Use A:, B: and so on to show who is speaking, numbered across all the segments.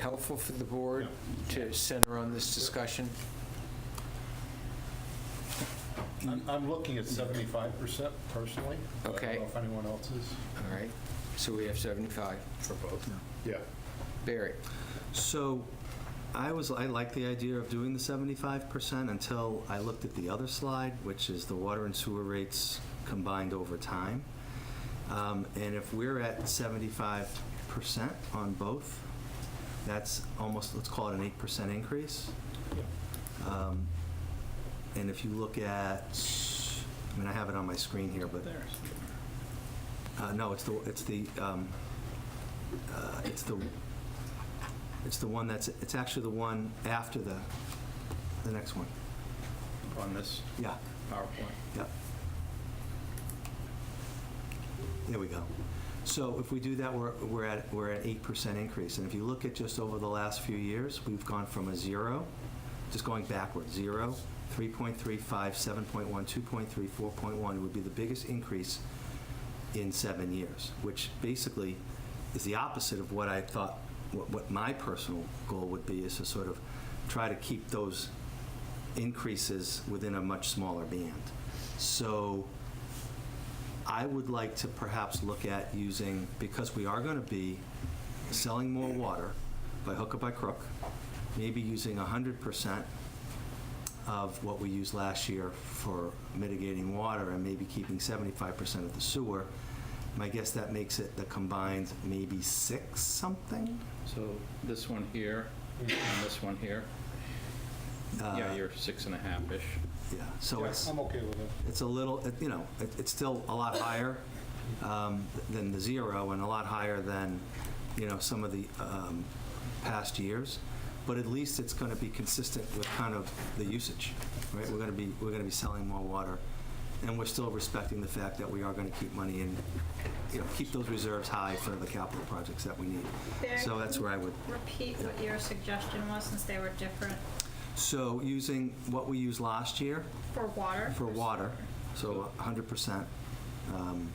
A: helpful for the board to center on this discussion?
B: I'm, I'm looking at 75% personally. but I
A: Okay.
B: don't know if anyone else is.
A: All right, so we have 75.
B: For both. Yeah.
A: Barry?
C: So I was, I like the idea of doing the 75% until I looked at the other slide, which is the water and sewer rates combined over time. Um, And if we're at 75% on both, that's almost, let's call it an 8% increase. Um, And if you look at, I mean, I have it on my screen here, but, uh, no, it's the, it's the, um, uh, it's the it's the one that's, it's actually the one after the, the next one.
B: On this
C: Yeah,
B: PowerPoint.
C: yeah. There we go. So if we do that, we're, we're at, we're at 8% increase. And if you look at just over the last few years, we've gone from a zero, just going backwards, zero, 3.35, 7.1, 2.3, 4.1 would be the biggest increase in seven years, which basically is the opposite of what I thought, what, what my personal goal would be, is to sort of try to keep those increases within a much smaller band. So I would like to perhaps look at using, because we are going to be selling more water by hook or by crook, maybe using 100% of what we used last year for mitigating water and maybe keeping 75% of the sewer. My guess that makes it the combined maybe six something?
D: So this one here and this one here, yeah,
C: Uh,
D: you're six and a half-ish.
C: Yeah, so
B: Yeah,
C: it's.
B: I'm okay with it.
C: it's a little, it- you know, it- it's still a lot higher um, than the zero and a lot higher than, you know, some of the um, past years. But at least it's going to be consistent with kind of the usage, right? We're going to be, we're going to be selling more water. And we're still respecting the fact that we are going to keep money in, you know, keep those reserves high for the capital projects that we need.
E: Barry,
C: So
E: can
C: that's where I would.
E: Repeat what your suggestion was, since they were different
C: So using what we used last year
E: for water.
C: for water, so 100%. um,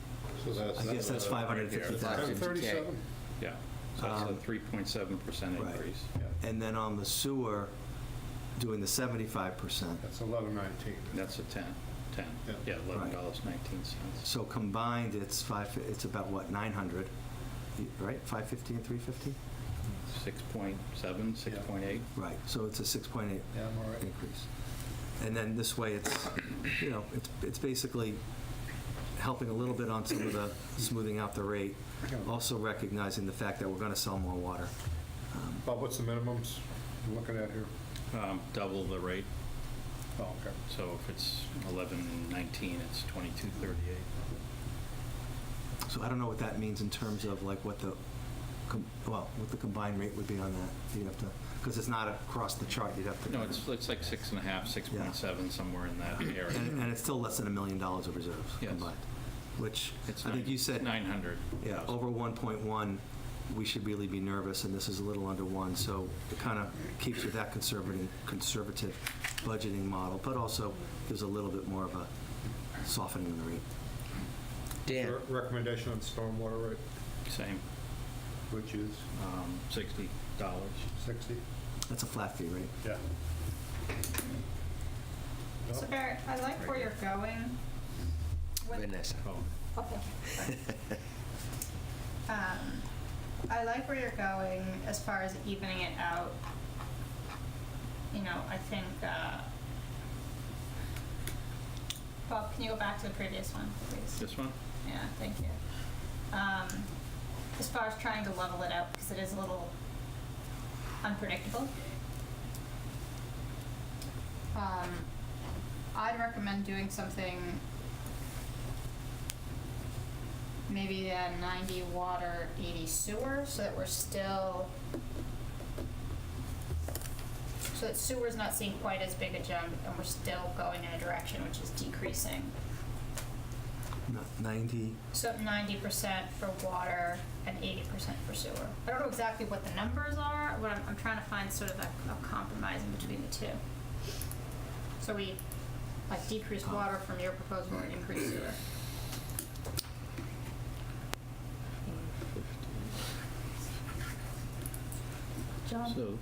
B: So that's.
C: I guess that's
B: uh,
D: Right
C: 550,000.
D: here.
B: 37?
D: Yeah, so that's a three point seven percent
C: um, right.
D: increase.
C: And then on the sewer, doing the seventy-five percent.
B: That's 1119.
D: That's a ten, ten,
B: Yeah.
D: yeah, eleven dollars nineteen cents.
C: So combined, it's five, it's about what, nine hundred, right? Five fifty and three fifty?
D: Six point seven, six point eight,
C: Right, so it's a six point eight
B: Yeah, I'm all right.
C: increase. And then this way, it's, you know, it's, it's basically helping a little bit on some of the smoothing out the rate, also recognizing the fact that we're gonna sell more water. Um,
B: Bob, what's the minimums you're looking at here?
D: um, double the rate.
B: Oh, okay.
D: So if it's eleven nineteen, it's twenty-two thirty-eight.
C: So I don't know what that means in terms of like what the, com- well, what the combined rate would be on that. You have to, because it's not across the chart, you'd have to.
D: No, it's, it's like six and a half, six point seven, somewhere in that
C: And
D: area.
C: and it's still less than a million dollars of reserves
D: Yes.
C: combined, which
D: It's
C: I think
D: nine-
C: you said,
D: Nine hundred.
C: yeah, over 1.1, we should really be nervous, and this is a little under one, so it kind of keeps with that conservative, conservative budgeting model, but also there's a little bit more of a softening of the rate.
A: Dan?
B: Your Recommendation on stormwater rate,
D: Same,
B: which is
D: um, sixty dollars.
B: 60?
C: That's a flat fee, right?
B: Yeah. No?
E: So Barry, I like where you're going. with-
A: Vanessa?
E: Oh, thank you. Um, I like where you're going as far as evening it out. You know, I think, uh, Bob, can you go back to the previous one, please?
D: This one?
E: Yeah, thank you. Um, as far as trying to level it out, because it is a little unpredictable. Um, I'd recommend doing something maybe a 90 water, 80 sewer, so that we're still. So that sewer's not seeing quite as big a jump, and we're still going in a direction which is decreasing.
C: Not 90,
E: So ninety percent for water and eighty percent for sewer. I don't know exactly what the numbers are, but I'm, I'm trying to find sort of a, a compromise in between the two. So we, like decrease water from your proposal and increase sewer. John?
D: So